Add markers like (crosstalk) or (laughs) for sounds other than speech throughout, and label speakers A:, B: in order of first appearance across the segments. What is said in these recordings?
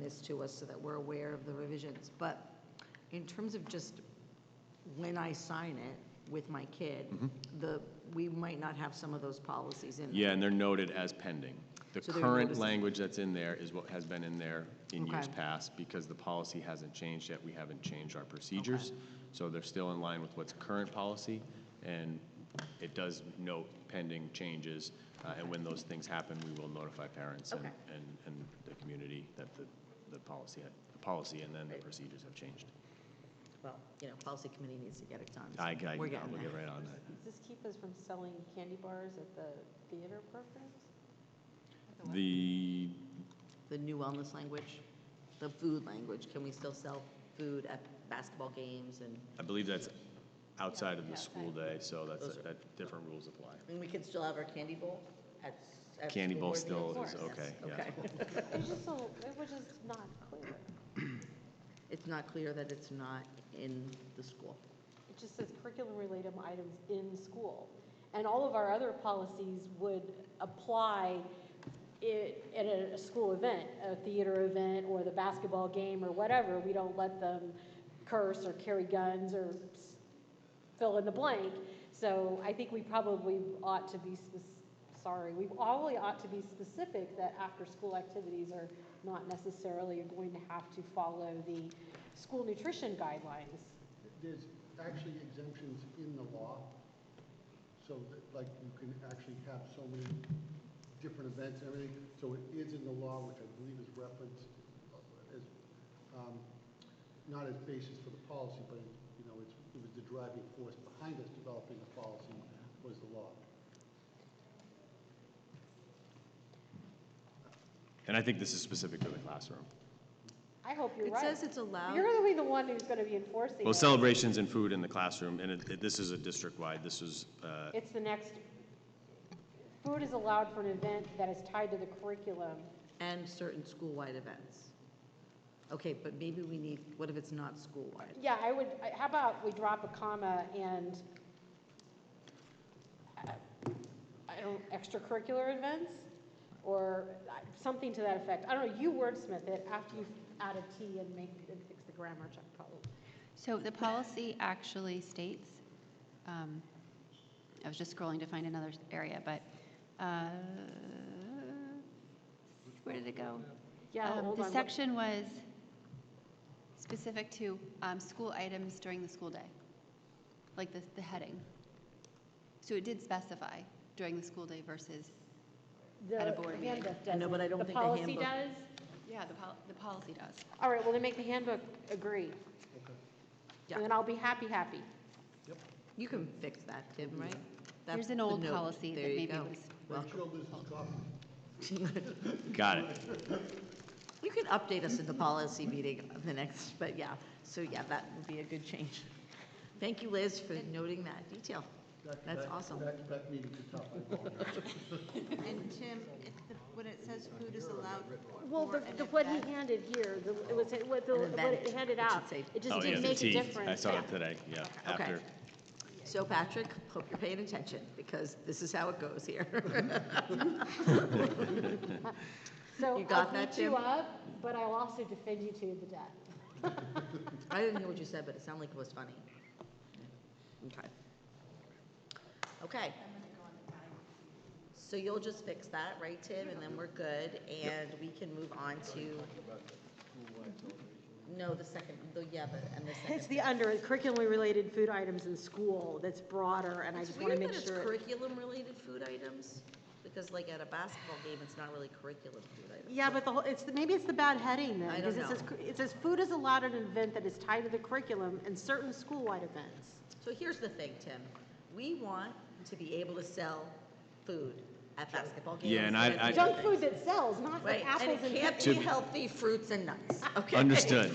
A: this to us so that we're aware of the revisions. But in terms of just when I sign it with my kid, the, we might not have some of those policies in. there.
B: Mm-hmm. Yeah, and they're noted as pending. The
A: So they're noticed-
B: current language that's in there is what has been in there in years
A: Okay.
B: past, because the policy hasn't changed yet, we haven't changed our procedures. So they're still in line with what's current policy, and it does note pending changes. uh, And when those things happen, we will notify parents and,
A: Okay.
B: and, and the community that the, the policy, had- the policy and then the procedures have changed.
A: Well, you know, policy committee needs to get it done. so
B: I, I,
A: We're
B: we'll
A: getting
B: get
A: there.
B: right on that.
C: Does this keep us from selling candy bars at the theater programs?
B: The,
A: The new wellness language, the food language, can we still sell food at basketball games and,
B: I believe that's outside of the school day, so that's, that, different rules apply.
A: and we can still have our candy bowl at, at
B: Candy
A: school
B: bowl
A: board
B: still
A: meetings?
B: is
A: Yes,
B: okay, yeah.
A: Okay. (laughs)
C: It's just so, it was just not clear.
A: It's not clear that it's not in the school.
C: It just says curriculum related items in school. And all of our other policies would apply i at a school event, a theater event or the basketball game or whatever. We don't let them curse or carry guns or s- fill in the blank. So I think we probably ought to be, spec- sorry, we probably ought to be specific that after-school activities are not necessarily going to have to follow the school nutrition guidelines.
D: There's actually exemptions in the law, so that, like, you can actually have so many different events and everything. So it is in the law, which I believe is referenced uh, as, um, not as basis for the policy, but, you know, it's, it was the driving force behind us developing the policy was the law.
B: And I think this is specific to the classroom.
C: I hope you're
A: It
C: right.
A: says it's allowed.
C: You're gonna be the one who's gonna be enforcing
B: Well,
C: it.
B: celebrations and food in the classroom, and it, it- this is a district-wide, this is, uh,
C: It's the next, food is allowed for an event that is tied to the curriculum.
A: and certain school-wide events. Okay, but maybe we need, what if it's not school-wide?
C: Yeah, I would, I- how about we drop a comma and, uh, I don't, extracurricular events? Or uh, something to that effect. I don't know, you wordsmith it after you add a T and make, and fix the grammar check problem.
E: So the policy actually states, um, I was just scrolling to find another area, but, uh, where did it go?
C: Yeah,
E: Um,
C: hold on.
E: The
C: what-
E: section was specific to um, school items during the school day, like the, the heading. So it did specify during the school day versus,
C: the
E: at a board meeting.
C: handbook
A: I know, but I don't
C: doesn't.
A: think the
C: The policy
A: handbook-
C: does?
E: yeah, the, pol- the policy does.
C: All right, well, then make the handbook agree.
A: Yeah.
C: And then I'll be happy, happy.
A: You can fix that, Tim, right? That's
E: There's an
A: the
E: old
A: note.
E: policy that
A: There you
E: maybe
A: go.
E: was,
A: Well,
D: Rachel, this is copy.
B: got it.
A: (laughs) you can update us at the policy meeting of the next, but yeah, so yeah, that would be a good change. Thank you, Liz, for noting that detail.
D: Back-
A: That's
D: back-
A: awesome.
D: Back, back meeting to top.
F: And Tim, it- the- when it says food is allowed.
C: Well,
F: for
C: the,
F: an
C: the, what
F: event-
C: he handed here, the, it was, what the,
A: An
C: what
A: event.
C: it handed
A: It should
C: out,
A: say-
C: it just
B: Oh, yeah,
C: didn't
B: the
C: make a
B: T. I
C: difference.
B: saw
C: Yeah.
B: it today, yeah,
A: Okay.
C: (laughs)
B: after.
A: So Patrick, hope you're paying attention, because this is how it goes here. (laughs)
C: So
A: You got
C: I'll
A: that,
C: beat you
A: Jim?
C: up, but I'll also defend you to the death.
A: I didn't hear what you said, but it sounded like it was funny. Okay. Okay. So you'll just fix that, right, Tim? And then we're good, and we can move on to. No, the second, the, yeah, but, and the second.
C: It's the under, curriculum related food items in school that's broader, and I
A: It's
C: just wanna
A: weird
C: make
A: that it's
C: sure.
A: curriculum-related food items, because like at a basketball game, it's not really curriculum food items.
C: Yeah, but the whole, it's, the- maybe it's the bad heading then,
A: I
C: because
A: don't
C: it
A: know.
C: says, cur- it says food is allowed at an event that is tied to the curriculum and certain school-wide events.
A: So here's the thing, Tim. We want to be able to sell food at basketball games.
B: Yeah, and I-
A: at
B: I-
A: different
C: Junk food that sells, not
A: Right,
C: like
A: and
C: apples
A: it
C: and
A: can't
C: cookies.
A: be
B: To-
A: healthy fruits and nuts, okay?
B: Understood.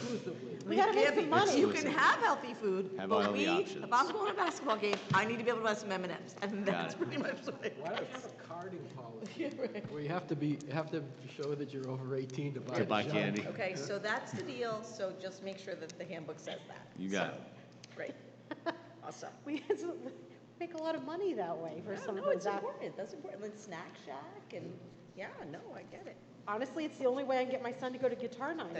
A: We
C: gotta make
A: can't
C: some
A: be-
C: money.
A: You can have healthy food,
B: Have
A: but
B: all the
A: we,
B: options.
A: if I'm going to a basketball game, I need to be able to have some M and M's, and that's
B: it.
A: pretty much what it
G: (laughs) Why do we have a carding policy? Where you have to be, have to show that you're over 18 to buy.
B: To buy
G: junk?
B: candy.
A: Okay, so that's the deal, so just make sure that the handbook says that.
B: You got it.
A: Great. Awesome.
C: We make a lot of money that way for some of
A: No, it's
C: those. app-
A: important, that's important, like Snack Shack and, yeah, no, I get it.
C: Honestly, it's the only way I can get my son to go to guitar night.